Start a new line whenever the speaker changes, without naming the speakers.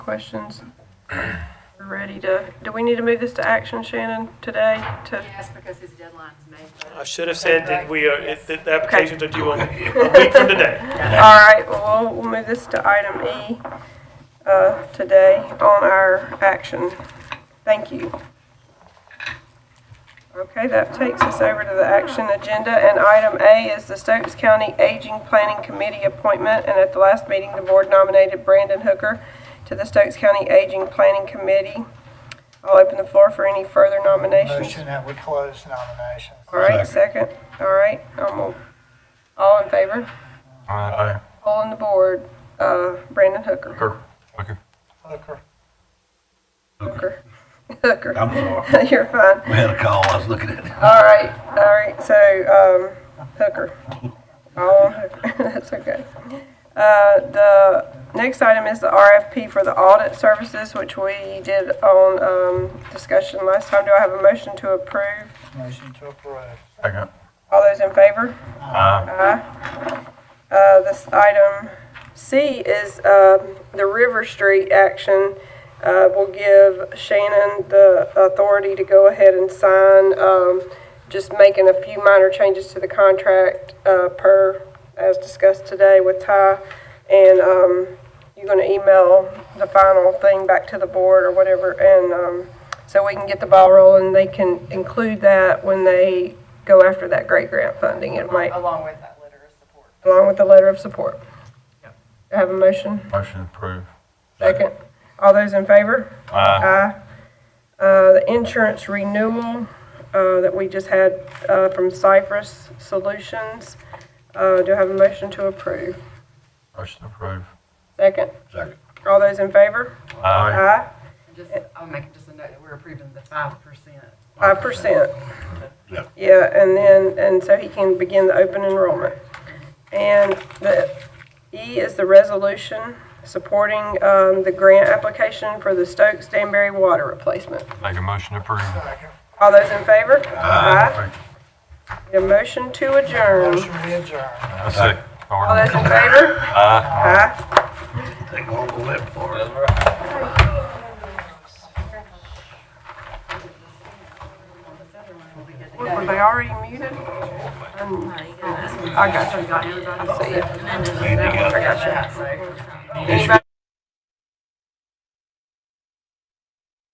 questions? We're Ready to, do we need to move this to action, Shannon, today? To,
Yes, because his deadline's May
I
3rd.
should have said that we are,
Yes.
that the applications are due on a week from today.
all right, well, we'll- we'll move this to item E, uh, today on our action. Thank you. Okay, that takes us over to the action agenda, and item A is the Stokes County Aging Planning Committee appointment, and at the last meeting, the board nominated Brandon Hooker to the Stokes County Aging Planning Committee. I'll open the floor for any further nominations.
Motion that we close nominations.
All right, second. All right, I'm all, all in favor?
Aye.
All on the board, uh, Brandon Hooker.
Hooker. Hooker.
Hooker.
Hooker. Hooker.
I'm sorry.
You're fine.
We had a call, I was looking at it.
All right, all right, so, um, Hooker. All on Hooker, that's okay. Uh, the next item is the RFP for the audit services, which we did on, um, discussion last time. Do I have a motion to approve?
Motion to approve.
Second.
All those in favor?
Aye.
Aye. Uh, This item C is um, the River Street action. Uh, Will give Shannon the authority to go ahead and sign, um, just making a few minor changes to the contract uh, per, as discussed today with Ty. And um, you're going to email the final thing back to the board or whatever, and um, so we can get the ball rolling. They can include that when they go after that great grant funding. It might
Along with that letter of support.
along with the letter of support. Do I have a motion?
Motion approved.
Second. All those in favor?
Aye.
Aye. Uh, The insurance renewal uh, that we just had uh, from Cypress Solutions. Uh, Do I have a motion to approve?
Motion approved.
Second.
Second.
All those in favor?
Aye.
Aye.
And Just, I'll make just a note that we're approving the 5%.
Five percent.
Yeah.
Yeah, and then, and so he can begin the open enrollment. And the E is the resolution supporting um, the grant application for the Stokes Danbury water replacement.
Make a motion approved.
Second.
All those in favor?
Aye.
The motion to adjourn.
Motion we adjourn.
I see. Oh,
All those in favor?
Aye.
Aye.
Take all the lip for it.
What, Were they already muted? Um,
Oh,
I got you. I got you.
Ain't they got it?
I got you.
So-
They should